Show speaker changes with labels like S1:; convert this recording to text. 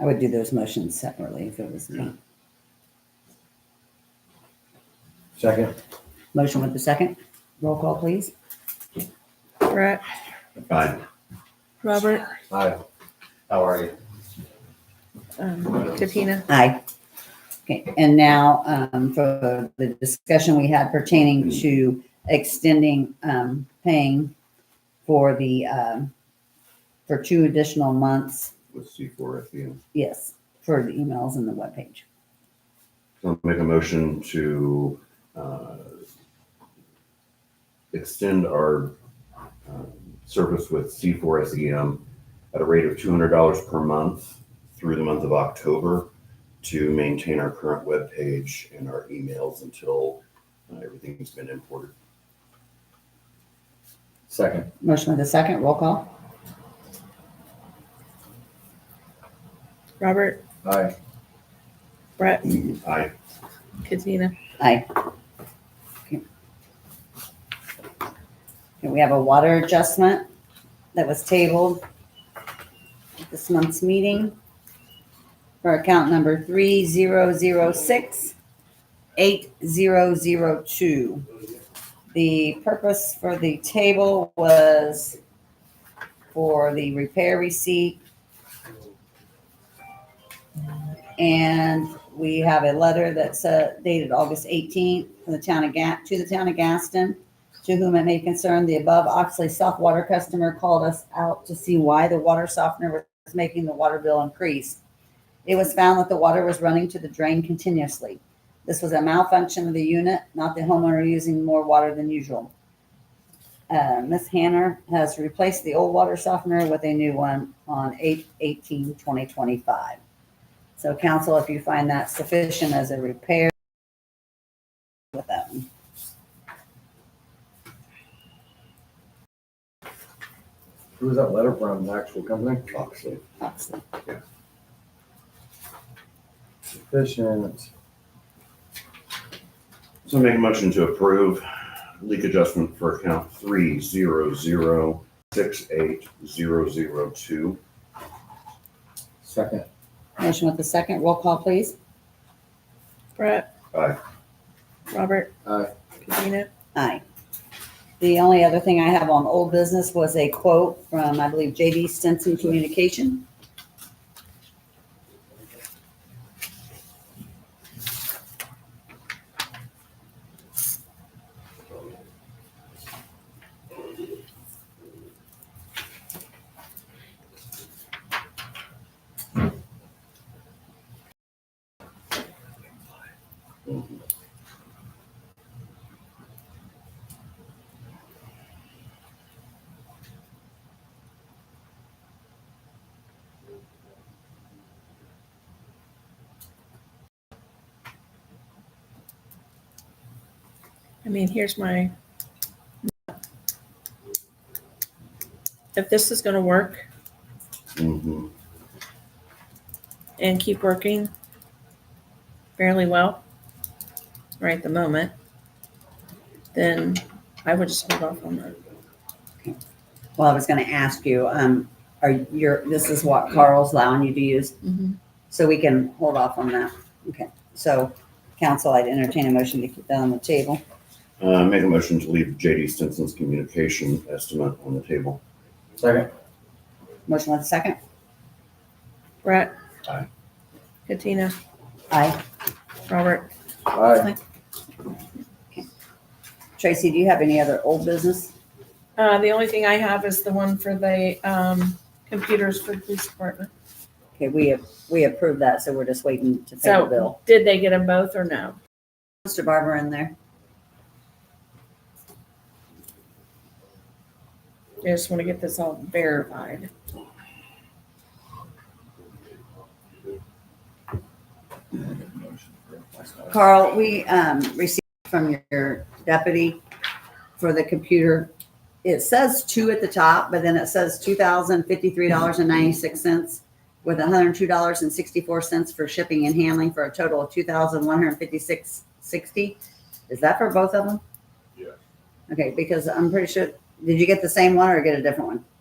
S1: I would do those motions separately if it was me.
S2: Second.
S1: Motion with the second. Roll call, please.
S3: Brett,
S4: Aye.
S3: Robert,
S2: Hi. How are you?
S3: um, Katina.
S1: Aye. Okay, and now um, for the discussion we had pertaining to extending um, paying for the, um, for two additional months,
S4: With C four at the end.
S1: yes, for the emails and the webpage.
S4: I'll make a motion to, uh, extend our, um, service with C four SEM at a rate of two hundred dollars per month through the month of October to maintain our current webpage and our emails until uh, everything's been imported.
S2: Second.
S1: Motion with the second. Roll call.
S3: Robert,
S2: Hi.
S3: Brett,
S4: Aye.
S3: Katina.
S1: Aye. Okay, Okay, we have a water adjustment that was tabled at this month's meeting for account number three zero zero six eight zero zero two. The purpose for the table was for the repair receipt. And we have a letter that's uh, dated August 18th from the town of Ga, to the town of Gaston, to whom it may concern, the above Oxley soft water customer called us out to see why the water softener was making the water bill increase. It was found that the water was running to the drain continuously. This was a malfunction of the unit, not the homeowner using more water than usual. Uh, Ms. Hanner has replaced the old water softener with a new one on 8/18/2025. So council, if you find that sufficient as a repair with that one.
S2: Who was that letter from? The actual company?
S4: Oxley.
S1: Oxley.
S2: Sufficient.
S4: So make a motion to approve leak adjustment for account three zero zero six eight zero zero two.
S2: Second.
S1: Motion with the second, roll call please.
S3: Brett.
S4: Aye.
S3: Robert,
S2: Hi.
S3: Katina.
S1: Aye. The only other thing I have on old business was a quote from, I believe, JD Stinson Communication.
S3: I mean, here's my. If this is gonna work
S4: Mhm.
S3: and keep working fairly well, right at the moment, then I would just hold off on that.
S1: Well, I was gonna ask you, um, are your, this is what Carl's allowing you to use, so we can hold off on that. Okay, so council, I'd entertain a motion to keep that on the table.
S4: Uh, make a motion to leave JD Stinson's communication estimate on the table.
S2: Second.
S1: Motion with the second,
S3: Brett.
S4: Aye.
S3: Katina,
S1: aye.
S3: Robert,
S2: Hi.
S1: Tracy, do you have any other old business?
S3: Uh, the only thing I have is the one for the, um, computers for the police department.
S1: Okay, we, we approved that, so we're just waiting to pay the
S3: So-
S1: bill.
S3: Did they get them both or no?
S1: Mr. Barber in there?
S3: I just want to get this all verified.
S1: Carl, we um, received from your deputy for the computer. It says two at the top, but then it says two thousand fifty-three dollars and ninety-six cents with hundred and two dollars and sixty-four cents for shipping and handling for a total of two thousand one hundred fifty-six sixty. Is that for both of them?
S4: Yeah.
S1: Okay, because I'm pretty sure, did you get the same one or get a different one?